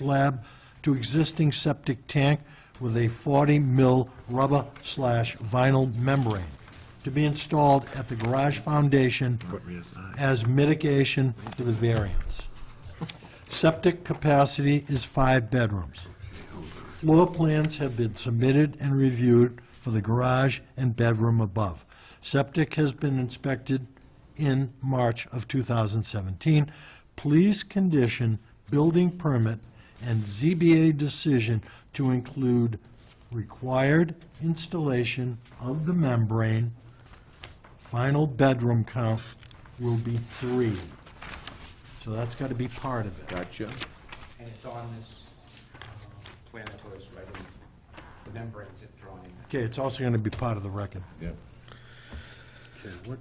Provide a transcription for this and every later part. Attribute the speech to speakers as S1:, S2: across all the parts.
S1: slab to existing septic tank with a 40 mil rubber slash vinyl membrane to be installed at the garage foundation as mitigation to the variance. Septic capacity is five bedrooms. Floor plans have been submitted and reviewed for the garage and bedroom above. Septic has been inspected in March of 2017. Please condition building permit and ZBA decision to include required installation of the membrane. Final bedroom count will be three. So that's got to be part of it.
S2: Gotcha.
S3: And it's on this uh, plan that was right in the membranes it drawn in.
S1: Okay, it's also going to be part of the record.
S2: Yeah.
S1: Okay, what,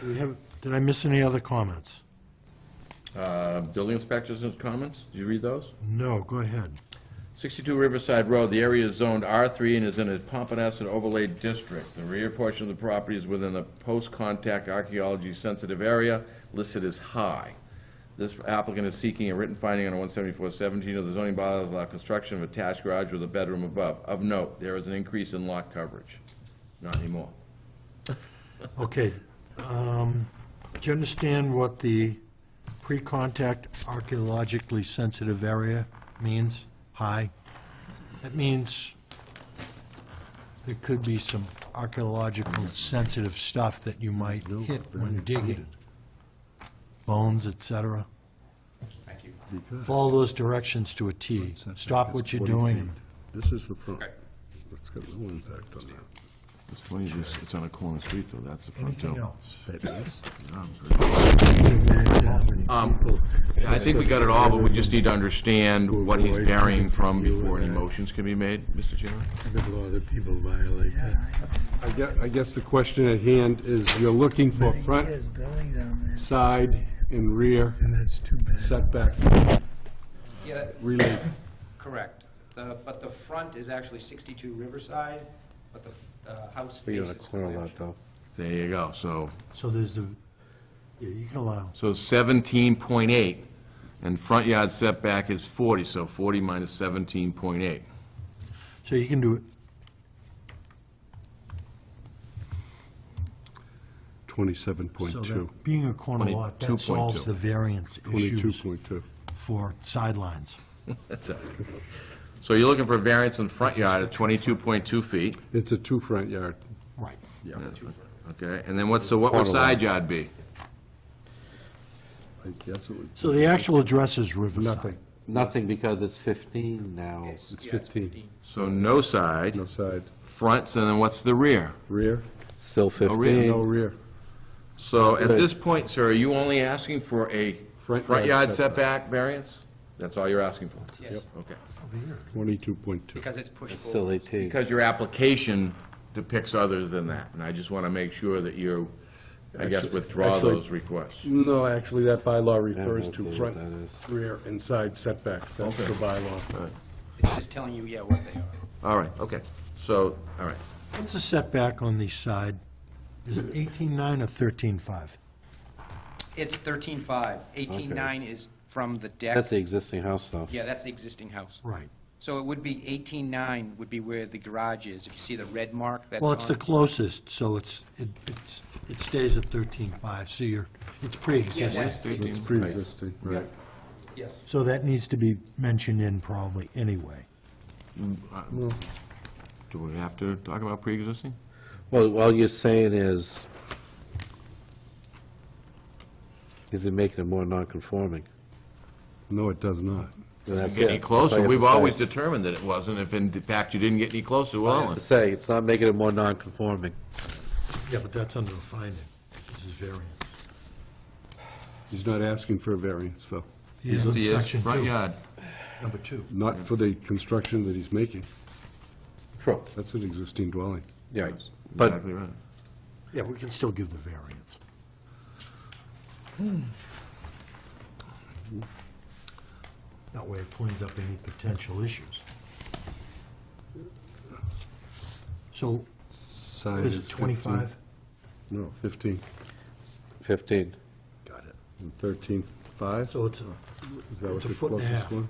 S1: do we have, did I miss any other comments?
S2: Uh, Building inspectors and comments, did you read those?
S1: No, go ahead.
S2: 62 Riverside Road, the area is zoned R3 and is in a Pompanesett overlay district. The rear portion of the property is within a post-contact archaeology-sensitive area listed as high. This applicant is seeking a written finding under 174-17 of the zoning bylaws allow construction of attached garage with a bedroom above. Of note, there is an increase in lot coverage. Not anymore.
S1: Okay, um, do you understand what the pre-contact archaeologically sensitive area means? High? That means there could be some archaeological sensitive stuff that you might hit when digging. Bones, et cetera.
S3: Thank you.
S1: Follow those directions to a T. Stop what you're doing and
S4: This is the front.
S3: Okay.
S4: It's got no impact on that.
S2: It's funny, it's on a corner street, though, that's the front
S1: anything else.
S4: That is?
S2: Um, I think we got it all, but we just need to understand what he's varying from before any motions can be made, Mr. Chairman.
S5: The law that people violate that.
S4: I guess, I guess the question at hand is you're looking for front,
S5: There's building down there,
S4: side, and rear
S5: and that's too bad.
S4: setback
S3: Yeah,
S4: relief.
S3: correct. The- But the front is actually 62 Riverside, but the uh, house faces Convention.
S2: There you go, so,
S1: So there's the, yeah, you can allow.
S2: so seventeen point eight, and front yard setback is forty, so forty minus seventeen point eight.
S1: So you can do it
S4: 27.2,
S1: So that, being a corner lot, that
S2: 22.2.
S1: solves the variance issues
S4: 22.2.
S1: for sidelines.
S2: That's it. So you're looking for variance in front yard of twenty-two point two feet,
S4: It's a two front yard.
S1: Right.
S2: okay? And then what's, so what would side yard be?
S4: I guess it would.
S1: So the actual address is Riverside.
S4: Nothing,
S6: Nothing because it's 15 now.
S4: It's
S3: yeah, it's
S4: 15.
S2: So no side,
S4: no side,
S2: fronts, and then what's the rear?
S4: rear,
S6: Still
S2: really?
S6: 15.
S4: no rear.
S2: So at this point, sir, are you only asking for a
S4: Front
S2: front
S4: yard
S2: yard setback variance? That's all you're asking for?
S3: Yes,
S2: Okay.
S4: 22.2.
S3: because it's pushed
S6: Silly
S3: forward.
S6: T.
S2: Because your application depicts others than that, and I just want to make sure that you, I guess,
S4: Actually-
S2: withdraw
S4: actually-
S2: those requests.
S4: No, actually, that bylaw refers
S6: won't
S4: to
S6: be what
S4: front,
S6: that is.
S4: rear, and side setbacks. That's the bylaw.
S3: It's just telling you, yeah, what they are.
S2: All right, okay. So, all right.
S1: What's the setback on the side? Is it 18.9 or 13.5?
S3: It's 13.5. 18.9 is from the deck.
S6: That's the existing house, though.
S3: Yeah, that's the existing house.
S1: Right.
S3: So it would be 18.9 would be where the garage is. If you see the red mark, that's on.
S1: Well, it's the closest, so it's, it it's- it stays at 13.5, so you're, it's pre-existing.
S3: that's-
S4: It's pre-existing. Right.
S3: Yes.
S1: So that needs to be mentioned in probably anyway.
S2: Do we have to talk about pre-existing?
S6: Well, all you're saying is, is it making it more non-conforming?
S4: No, it does not.
S6: And that's
S2: Get any
S6: it. That's all
S2: closer?
S6: you
S2: We've
S6: have to
S2: always
S6: say.
S2: determined that it wasn't. If in fact you didn't get any closer,
S6: All you have
S2: well,
S6: to Say, it's not making it more non-conforming.
S1: Yeah, but that's under a finding. This is variance.
S4: He's not asking for a variance, though.
S1: He's in
S3: uh,
S2: see, it's
S1: section
S2: front
S1: two,
S2: yard.
S1: number two.
S4: Not for the construction that he's making.
S6: True.
S4: That's an existing dwelling.
S6: Yeah.
S2: That's
S6: But
S2: Exactly right.
S1: Yeah, we can still give the variance. That way it cleans up any potential issues. So,
S4: Side
S1: is it 25?
S4: 15. No, 15.
S6: 15.
S1: Got it.
S4: And 13, 5?
S1: So it's a,
S4: Is that
S1: it's
S4: what
S1: a
S4: the
S1: foot and a
S4: closest
S1: half.
S4: one?